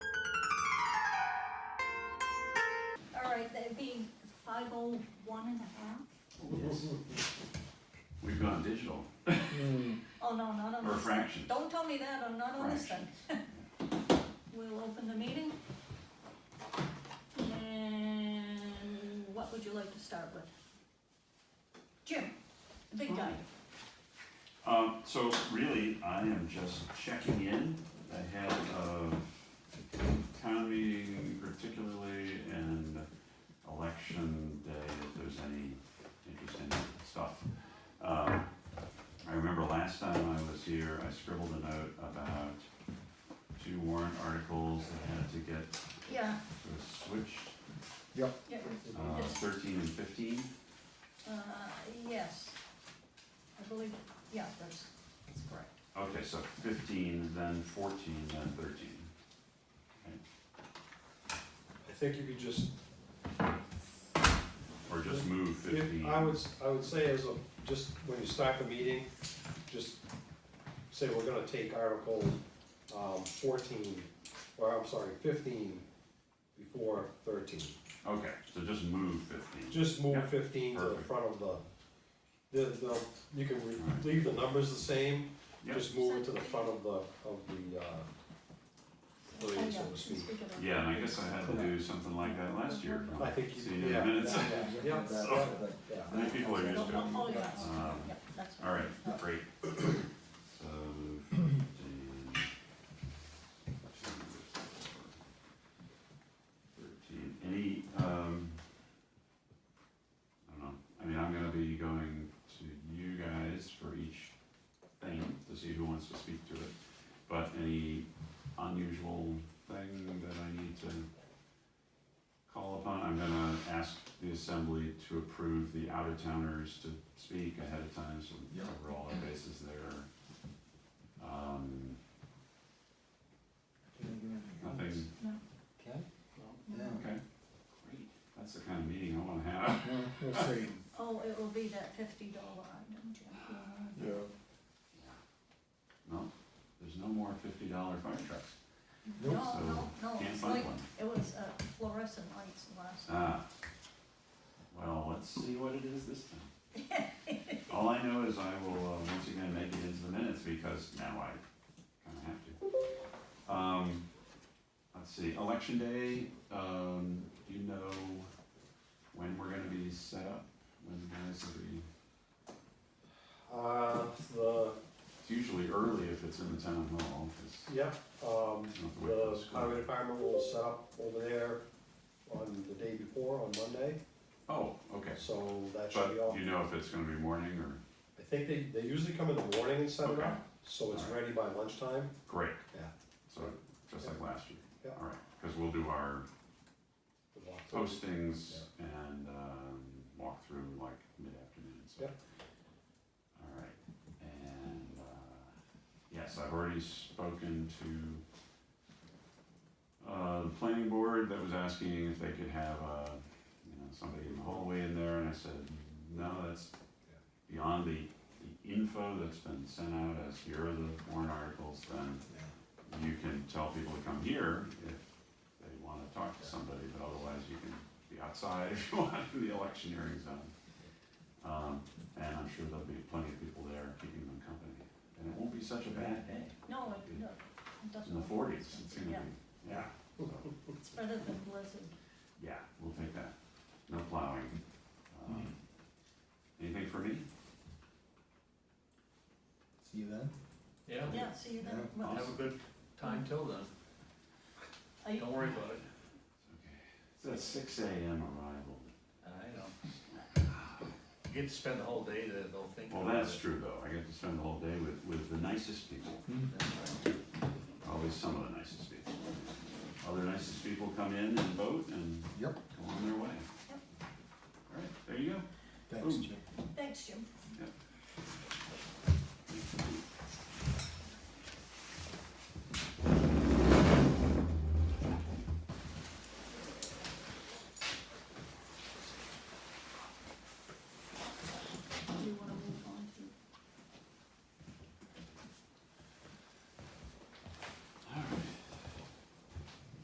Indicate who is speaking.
Speaker 1: five oh one and a half?
Speaker 2: We've gone digital,
Speaker 1: Oh, no, not on
Speaker 2: or
Speaker 1: this.
Speaker 2: fractions.
Speaker 1: Don't tell me that, I'm not on this thing. We'll open the meeting. And what would you like to start with? Jim, the big guy.
Speaker 2: Um, so really, I am just checking in ahead of economy particularly and election day, if there's any interesting stuff. Um, I remember last time I was here, I scribbled a note about two warrant articles that had to get
Speaker 1: Yeah,
Speaker 2: sort of switched,
Speaker 1: yeah,
Speaker 2: uh,
Speaker 1: it's,
Speaker 2: thirteen and fifteen.
Speaker 1: uh, yes. I believe, yeah, that's, that's correct.
Speaker 2: Okay, so fifteen, then fourteen, then thirteen.
Speaker 3: I think if you just,
Speaker 2: Or just move fifteen.
Speaker 3: if- I would, s- I would say as a, just when you start the meeting, just say we're gonna take article um, fourteen, or I'm sorry, fifteen before thirteen.
Speaker 2: Okay, so just move fifteen.
Speaker 3: Just move
Speaker 2: Yeah,
Speaker 3: fifteen to the
Speaker 2: perfect.
Speaker 3: front of the, the, the, you can re-
Speaker 2: Alright.
Speaker 3: leave the numbers the same,
Speaker 2: Yep.
Speaker 3: just move it to the front of the, of the, uh,
Speaker 1: Oh,
Speaker 3: podium,
Speaker 1: yeah,
Speaker 3: so
Speaker 1: can
Speaker 3: to speak.
Speaker 1: speak of that.
Speaker 2: Yeah, and I guess I had to do something like that last year.
Speaker 3: I think you,
Speaker 2: See you in
Speaker 3: yeah,
Speaker 2: a minute.
Speaker 3: yeah, yeah, yeah.
Speaker 2: I think people are used to it.
Speaker 1: Oh, oh, yes.
Speaker 2: Um,
Speaker 1: Yeah, that's Oh.
Speaker 2: All right,
Speaker 1: Yeah.
Speaker 2: great. So, 15, two, four, 13. Any, um, I don't know, I mean, I'm gonna be going to you guys for each thing to see who wants to speak to it. But any unusual thing that I need to call upon, I'm gonna ask the assembly to approve the out-of-towners to speak ahead of time, so we
Speaker 4: Yeah.
Speaker 2: cover all our bases there. Um, nothing,
Speaker 4: Okay. Yeah.
Speaker 2: okay, great, that's the kind of meeting I wanna have.
Speaker 4: Well, we'll see.
Speaker 1: Oh, it will be that fifty dollar item, Jim.
Speaker 4: Yeah.
Speaker 2: No, there's no more fifty dollar fire trucks,
Speaker 1: No,
Speaker 4: Nope.
Speaker 1: no, no,
Speaker 2: can't
Speaker 1: it's like,
Speaker 2: find one.
Speaker 1: it was uh, fluorescent lights last.
Speaker 2: Ah, well, let's see what it is this time. All I know is I will, uh, once again, make it into the minutes because now I kinda have to. Um, let's see, election day, um, do you know when we're gonna be set up? When you guys will be,
Speaker 3: Uh, the,
Speaker 2: it's usually early if it's in the town hall, 'cause
Speaker 3: yeah, um,
Speaker 2: you don't have to wait for
Speaker 3: The
Speaker 2: the school.
Speaker 3: highway department will set up over there on the day before, on Monday,
Speaker 2: Oh, okay,
Speaker 3: so that should be
Speaker 2: but
Speaker 3: all.
Speaker 2: you know if it's gonna be morning or,
Speaker 3: I think they, they usually come in the morning and set it
Speaker 2: Okay.
Speaker 3: up, so it's
Speaker 2: All
Speaker 3: ready by lunchtime.
Speaker 2: great.
Speaker 3: Yeah.
Speaker 2: So, just like last year.
Speaker 3: Yeah.
Speaker 2: All right, cause we'll do our
Speaker 3: Good luck.
Speaker 2: postings and um, walk through like mid-afternoon, so.
Speaker 3: Yep.
Speaker 2: All right, and, uh, yes, I've already spoken to uh, the planning board that was asking if they could have, uh, you know, somebody in the hallway in there, and I said, no, that's beyond the, the info that's been sent out as here are the warrant articles, then you can tell people to come here if they wanna talk to somebody, but otherwise you can be outside if you want in the electioneering zone. Um, and I'm sure there'll be plenty of people there keeping them company, and it won't be such a bad day,
Speaker 1: No, it, no, it doesn't.
Speaker 2: in the forties, it's gonna
Speaker 1: Yeah,
Speaker 2: be, yeah, so,
Speaker 1: it's better than blizzard.
Speaker 2: yeah, we'll take that, no plowing. Um, Anything for me?
Speaker 4: See you then.
Speaker 5: Yeah,
Speaker 1: Yeah, see, you then,
Speaker 4: Yeah.
Speaker 1: well,
Speaker 5: have a good time till then,
Speaker 1: are you,
Speaker 5: don't worry about it,
Speaker 2: It's a six AM arrival,
Speaker 5: I know. You get to spend the whole day there, they'll think.
Speaker 2: well,
Speaker 5: about
Speaker 2: that's
Speaker 5: it.
Speaker 2: true though, I get to spend the whole day with, with the nicest people.
Speaker 5: That's right.
Speaker 2: Always some of the nicest people. Other nicest people come in and vote and
Speaker 4: Yep.
Speaker 2: go on their way.
Speaker 1: Yep.
Speaker 2: Alright, there you go.
Speaker 4: Thanks,
Speaker 2: Ooh.
Speaker 4: Jim.
Speaker 1: thanks, Jim.